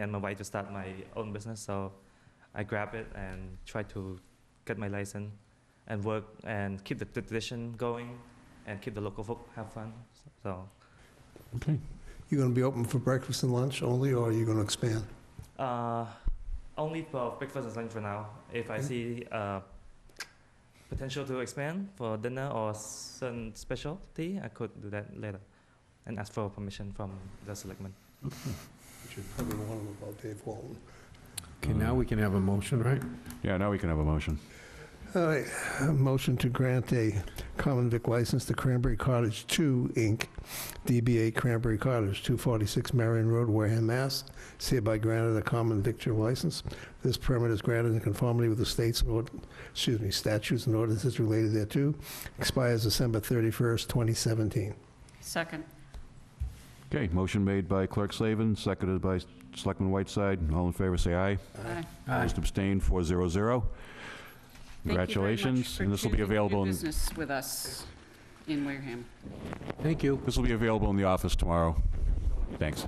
and my wife to start my own business. So I grabbed it and tried to get my license and work and keep the tradition going and keep the local folk have fun. So Okay. You going to be open for breakfast and lunch only, or are you going to expand? uh, only for breakfast and lunch for now. If I Mhm. see uh, potential to expand for dinner or certain specialty, I could do that later and ask for permission from the selectmen. You should probably warn them about Dave Walton. Okay, now we can have a motion, right? Yeah, now we can have a motion. All right, a motion to grant a common vic license to Cranberry Cottage 2, Inc., DBA Cranberry Cottage, 246 Marion Road, Wareham, Mass. It's hereby granted a common victor license. This permit is granted in conformity with the state's, and ord- excuse me, statutes and ordinances related thereto. Expires December 31st, 2017. Second. Okay, motion made by Clerk Slavin, seconded by Selectman Whiteside. All in favor, say aye. Aye. Opposed, abstained, 400. Congratulations. And this will be available, in business with us in Wareham. Thank you. this will be available in the office tomorrow. Thanks.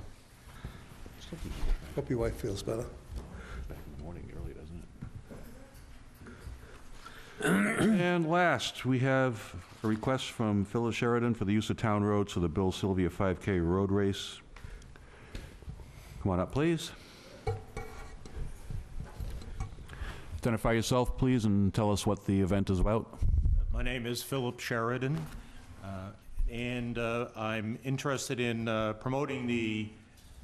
Hope your wife feels better. Morning early, doesn't it? And last, we have a request from Phyllis Sheridan for the use of town roads for the Bill Sylvia 5K Road Race. Come on up, please. Identify yourself, please, and tell us what the event is about. My name is Philip Sheridan, uh, and uh, I'm interested in uh, promoting the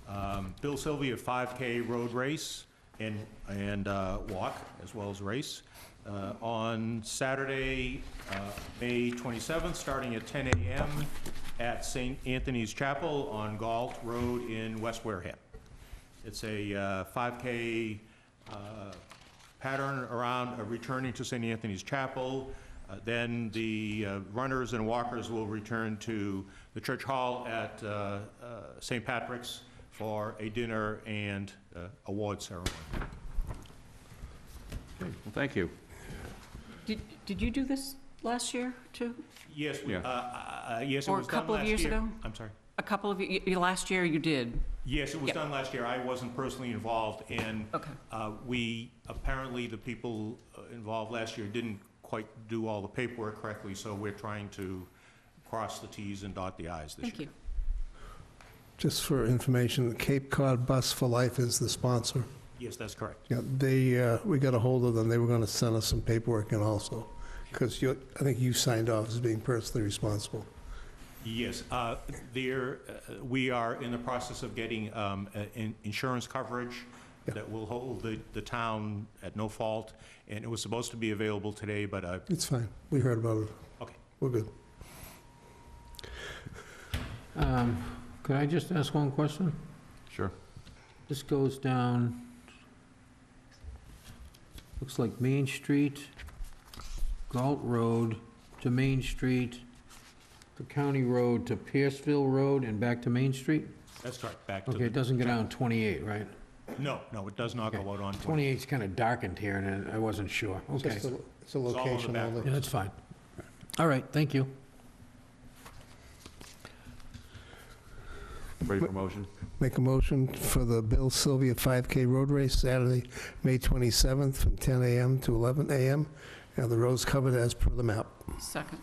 um, Bill Sylvia 5K Road Race and, and uh, Walk, as well as race, uh, on Saturday, uh, May 27th, starting at 10 a.m. at St. Anthony's Chapel on Galt Road in West Wareham. It's a uh, 5K uh, pattern around uh, returning to St. Anthony's Chapel. Uh, Then the uh, runners and walkers will return to the church hall at uh, uh, St. Patrick's for a dinner and uh, award ceremony. Well, thank you. Did, did you do this last year, too? Yes, we- Yeah. uh, uh, uh, yes, it Or a was done couple of last years year. ago? I'm sorry. A couple of, y- y- last year you did. Yes, it was Yep. done last year. I wasn't personally involved, and Okay. uh, we, apparently, the people uh, involved last year didn't quite do all the paperwork correctly, so we're trying to cross the Ts and dot the Is this year. Thank you. Just for information, Cape Cod Bus for Life is the sponsor. Yes, that's correct. Yeah, they, uh, we got a hold of them, they were gonna send us some paperwork and also, because you, I think you signed off as being personally responsible. Yes, uh, there, uh, we are in the process of getting um, a- in- insurance coverage Yeah. that will hold the the town at no fault, and it was supposed to be available today, but, uh, It's fine, we heard about it, okay. we're good. Um, Could I just ask one question? Sure. This goes down, looks like Main Street, Galt Road to Main Street, the county road to Pierceville Road and back to Main Street? That's correct, back to Okay, it the, doesn't go down 28, right? no, no, it does not go Okay. out on 20. 28's kind of darkened here, and I wasn't sure. Okay. Just a- It's a all on the location back only. Yeah, that's fine. All right, thank you. Ready for motion? Make a motion for the Bill Sylvia 5K Road Race, Saturday, May 27th, from 10 AM to 11 AM, and the road's covered as per the map. Second.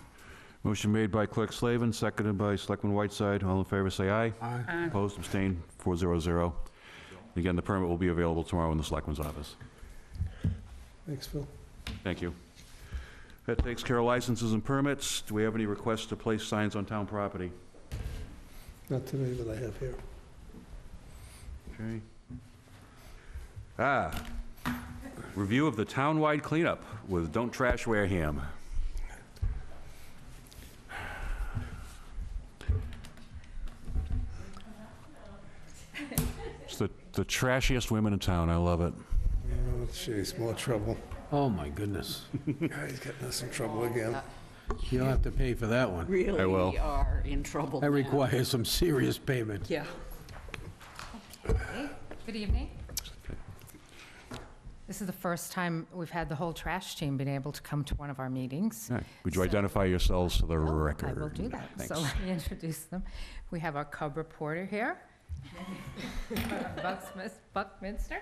Motion made by Clerk Slavin, seconded by Selectman Whiteside. All in favor, say aye. Aye. Aye. Opposed, abstained, 400. Again, the permit will be available tomorrow in the Selectman's office. Thanks, Phil. Thank you. That takes care of licenses and permits. Do we have any requests to place signs on town property? Not today that I have here. Okay. Ah, review of the townwide cleanup with Don't Trash Wareham. It's the the trashiest women in town, I love it. Oh, Jeez, more trouble. Oh, my goodness. He's getting us in trouble again. You'll have to pay for that one. Really will. are in trouble That now. requires some serious payment. Yeah. Good evening. This is the first time we've had the whole trash team been able to come to one of our meetings. All right, Would you So- identify yourselves for the Oh, record? I will do that. So Thanks. let me introduce them. We have our cub reporter here, Bucks- Buckminster?